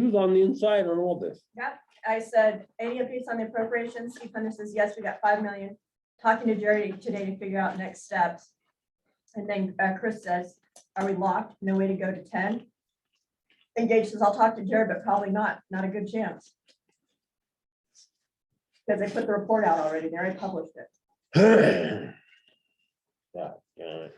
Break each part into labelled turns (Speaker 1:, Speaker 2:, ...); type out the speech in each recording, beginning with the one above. Speaker 1: He was on the inside on all this.
Speaker 2: I said, any updates on the appropriations? He says, yes, we got five million. Talking to Jerry today to figure out next steps. And then uh, Chris says, are we locked? No way to go to ten? And Gage says, I'll talk to Jerry, but probably not, not a good chance. Because they put the report out already, they already published it.
Speaker 1: God, damn it.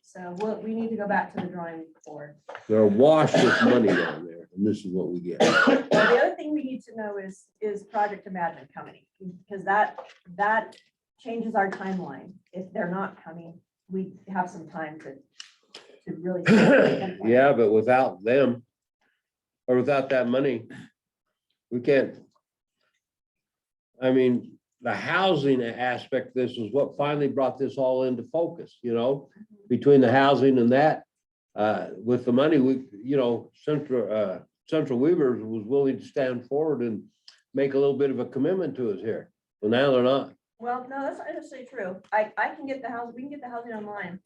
Speaker 2: So we'll, we need to go back to the drawing board.
Speaker 1: They're awash with money down there, and this is what we get.
Speaker 2: Well, the other thing we need to know is, is Project Imagine coming? Because that, that changes our timeline. If they're not coming, we have some time to, to really.
Speaker 1: Yeah, but without them, or without that money, we can't. I mean, the housing aspect, of this is what finally brought this all into focus, you know? Between the housing and that, uh, with the money, we, you know, Central, uh, Central Weaver was willing to stand forward and make a little bit of a commitment to us here. Well, now they're not.
Speaker 2: Well, no, that's not necessarily true. I, I can get the house, we can get the housing online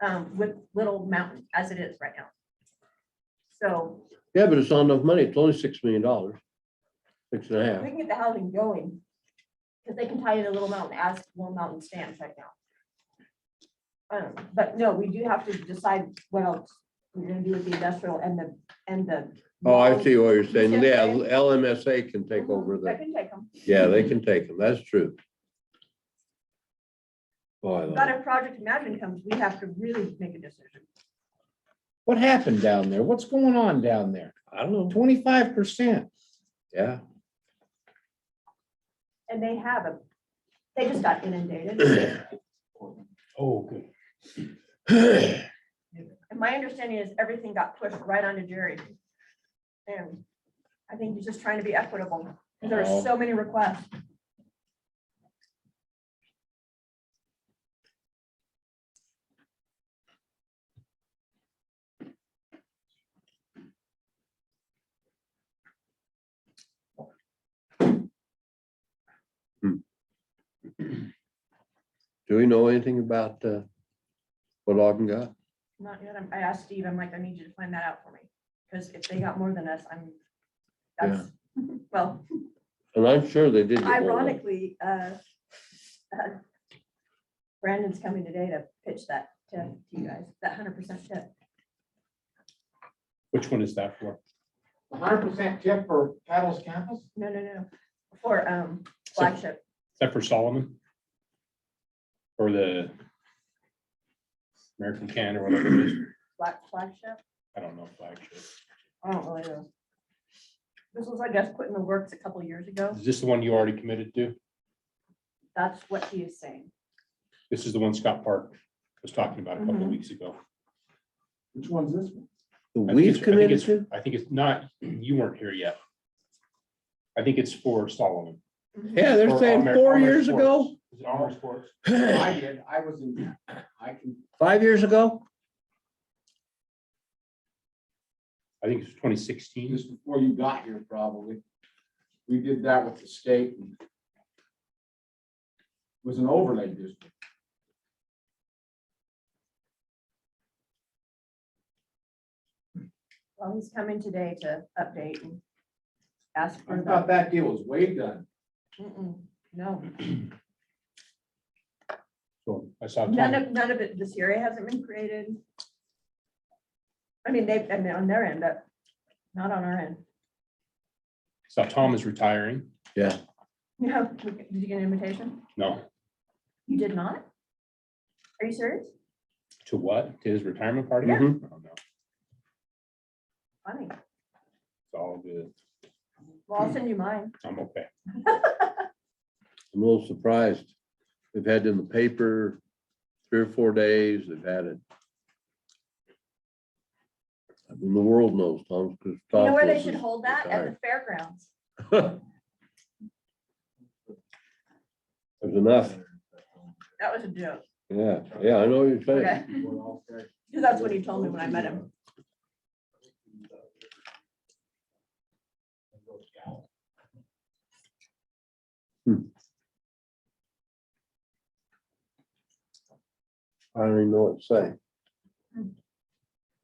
Speaker 2: um, with Little Mountain as it is right now. So
Speaker 1: Yeah, but it's not enough money. It's only six million dollars. Six and a
Speaker 2: we
Speaker 1: half.
Speaker 2: can get the housing going. Because they can tie it to Little Mountain as Little Mountain stands right now. Um, but no, we do have to decide what else we're gonna do with the industrial and the, and the.
Speaker 1: Oh, I see what you're saying.
Speaker 2: Yeah.
Speaker 1: Yeah, LMSA can take
Speaker 2: Mhm,
Speaker 1: over
Speaker 2: I
Speaker 1: the,
Speaker 2: can take them.
Speaker 1: yeah, they can take them. That's true. Oh, I
Speaker 2: But
Speaker 1: love it.
Speaker 2: if Project Imagine comes, we have to really make a decision.
Speaker 3: What happened down there? What's going on down there?
Speaker 1: I don't know.
Speaker 3: Twenty-five percent.
Speaker 1: Yeah.
Speaker 2: And they have a, they just got inundated.
Speaker 3: Oh, good.
Speaker 2: And my understanding is everything got pushed right onto Jerry. And I think he's just trying to be equitable. There are
Speaker 3: Oh.
Speaker 2: so many requests.
Speaker 1: Do we know anything about uh, what Ogden got?
Speaker 2: Not yet. I'm- I asked Steve, I'm like, I need you to find that out for me. Because if they got more than us, I'm, that's, well,
Speaker 1: And I'm sure they did. get more than-
Speaker 2: ironically, uh, uh, Brandon's coming today to pitch that tip to you guys, that hundred percent tip.
Speaker 4: Which one is that for?
Speaker 3: Hundred percent tip for Paddles Campus?
Speaker 2: No, no, no, for, um, flagship.
Speaker 4: Is that for Solomon? Or the American can or whatever it is?
Speaker 2: Black flagship?
Speaker 4: I don't know. flagship.
Speaker 2: I don't really know. This was, I guess, put in the works a couple years ago.
Speaker 4: Is this the one you already committed to?
Speaker 2: That's what he is saying.
Speaker 4: This is the one Scott Park was talking about a couple of
Speaker 2: Mhm.
Speaker 4: weeks ago.
Speaker 3: Which one's this one?
Speaker 1: The
Speaker 4: I think
Speaker 1: We've
Speaker 4: it's- I think
Speaker 1: committed
Speaker 4: it's-
Speaker 1: to?
Speaker 4: I think it's not, you weren't here yet. I think it's for Solomon.
Speaker 1: Yeah, they're
Speaker 4: Or
Speaker 1: saying
Speaker 4: Amer-
Speaker 1: four
Speaker 4: Amer
Speaker 1: years
Speaker 4: Sports.
Speaker 1: ago,
Speaker 4: Is it Armory Sports?
Speaker 3: I did, I was in, I can,
Speaker 1: five years ago?
Speaker 4: I think it's twenty sixteen.
Speaker 3: just before you got here probably. We did that with the state. and It Was an overlay district.
Speaker 2: Well, he's coming today to update and ask
Speaker 3: I
Speaker 2: for
Speaker 3: thought
Speaker 2: that.
Speaker 3: that deal was way done.
Speaker 2: Mm-mm, No,
Speaker 4: So I saw.
Speaker 2: none
Speaker 4: Tom-
Speaker 2: of, none of it, this area hasn't been created. I mean, they've, and they're on their end, but not on our end.
Speaker 4: Saw Tom is retiring.
Speaker 2: You have, did you get an invitation?
Speaker 4: No,
Speaker 2: You did not? Are you serious?
Speaker 4: to what? To his retirement party?
Speaker 1: Yeah.
Speaker 4: Mhm. Oh, no.
Speaker 2: Funny.
Speaker 4: It's all good.
Speaker 2: Well, I'll send you mine.
Speaker 4: I'm okay.
Speaker 1: I'm a little surprised. They've had it in the paper three or four days. They've had it. I mean, the world knows, Tom, because.
Speaker 2: You know where they should hold that? At the fairgrounds.
Speaker 1: There's enough.
Speaker 2: That was a joke.
Speaker 1: Yeah, yeah, I know what you're saying.
Speaker 2: Okay. Because that's what he told me when I met him.
Speaker 1: I don't even know what to say.